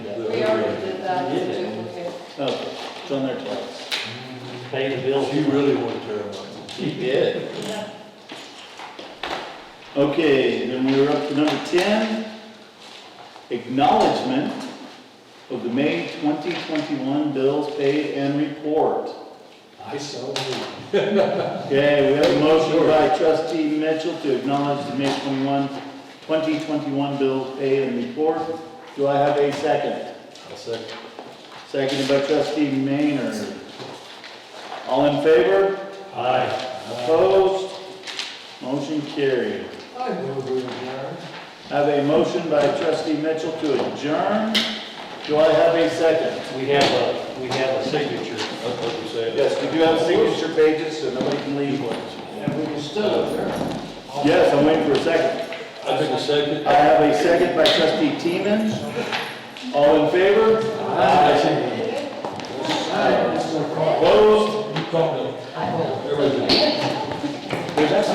that You is did it. duplicate. Oh, it's on there twice. Pay the bill. She really wanted to. She did. Okay, then we were up to number ten. Acknowledgement of the May twenty twenty-one bills paid and report. I so moved. Okay, we have a motion by trustee Mitchell to acknowledge the May 21, 2021 bills paid and report. Do I have a second? I'll second. Seconded by trustee Maynard. All in favor? Aye. Opposed? Motion carried. I move we adjourn. Have a motion by trustee Mitchell to adjourn. Do I have a second? We have a, we have a signature. That's what you said. Yes, we do have signature pages, so nobody can leave. And we can still adjourn. Yes, I'm waiting for a second. I think a second. I have a second by trustee Teeman. All in favor? Aye. Aye. Mr. Carl. Opposed? You called it.